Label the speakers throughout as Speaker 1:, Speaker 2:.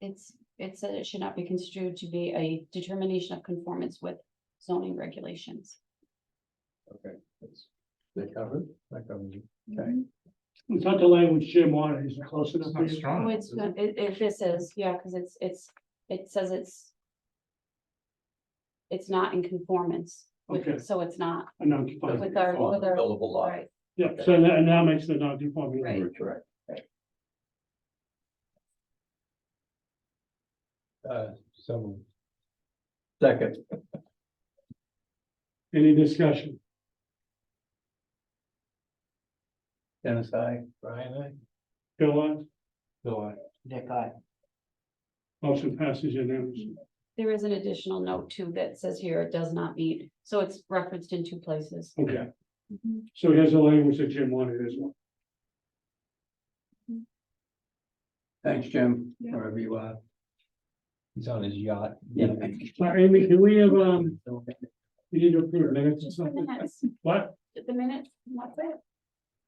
Speaker 1: It's, it said it should not be construed to be a determination of conformance with zoning regulations.
Speaker 2: Okay. that's- They covered, that covers it. Okay.
Speaker 3: It's not the language Jim wanted, is it close enough?
Speaker 4: It's
Speaker 3: for
Speaker 4: not
Speaker 3: you?
Speaker 4: strong.
Speaker 1: Oh,
Speaker 4: enough,
Speaker 1: it's,
Speaker 4: is it?
Speaker 1: not- it, it, this is, yeah, cause it's, it's, it says it's. It's not in conformance
Speaker 3: Okay.
Speaker 1: with, so it's not
Speaker 3: A non-conforming.
Speaker 1: with our, with our,
Speaker 2: Buildable lot.
Speaker 1: right,
Speaker 3: Yeah, so that, and that makes the non-conforming.
Speaker 1: Right.
Speaker 2: Correct. Uh, so. Second,
Speaker 3: Any discussion?
Speaker 2: Dennis, I, Brian, I,
Speaker 3: Bill, uh, aye?
Speaker 2: Bill, I.
Speaker 5: Nick, I.
Speaker 3: motion passes unanimously.
Speaker 1: there is an additional note too that says here it does not meet, so it's referenced in two places.
Speaker 3: Okay, so here's the language that Jim wanted as well.
Speaker 2: Thanks, Jim,
Speaker 1: Yeah.
Speaker 2: wherever you are. He's on his yacht.
Speaker 3: Yeah. So Amy, can we have, um, we need to approve minutes or
Speaker 1: Just for the
Speaker 3: something?
Speaker 1: minutes,
Speaker 3: What?
Speaker 1: the minutes, what's it?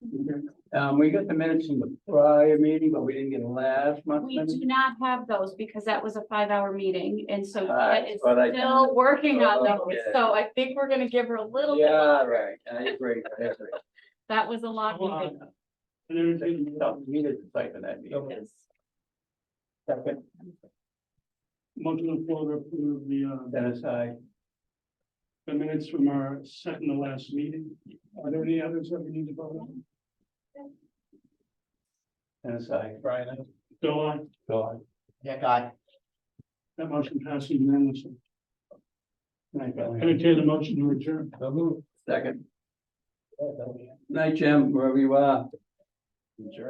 Speaker 2: Um, we got the minutes from the prior meeting, but we didn't get last month's
Speaker 1: We do
Speaker 2: minutes.
Speaker 1: not have those because that was a five-hour meeting, and so
Speaker 2: Ah,
Speaker 1: Jet is
Speaker 2: but I- Oh,
Speaker 1: still working on those,
Speaker 2: Okay.
Speaker 1: so I think we're gonna give her a little bit.
Speaker 2: Yeah, right, I agree, I agree.
Speaker 1: That was a lot.
Speaker 3: Well,
Speaker 1: meeting.
Speaker 3: And then we can-
Speaker 2: Something Needed to type in that meeting.
Speaker 1: Yes.
Speaker 2: Second,
Speaker 3: Motion on the floor to approve the, uh,
Speaker 2: Dennis, I,
Speaker 3: the minutes from our second to last meeting. Are there any others that we need to vote on?
Speaker 2: Dennis, I, Brian, I,
Speaker 3: Bill, aye?
Speaker 2: Bill, I.
Speaker 5: Nick, I.
Speaker 3: That motion passes unanimously.
Speaker 2: Night, Brian.
Speaker 3: Entertain the motion to adjourn.
Speaker 2: So moved. Second. Night, Jim, wherever you are. Sure.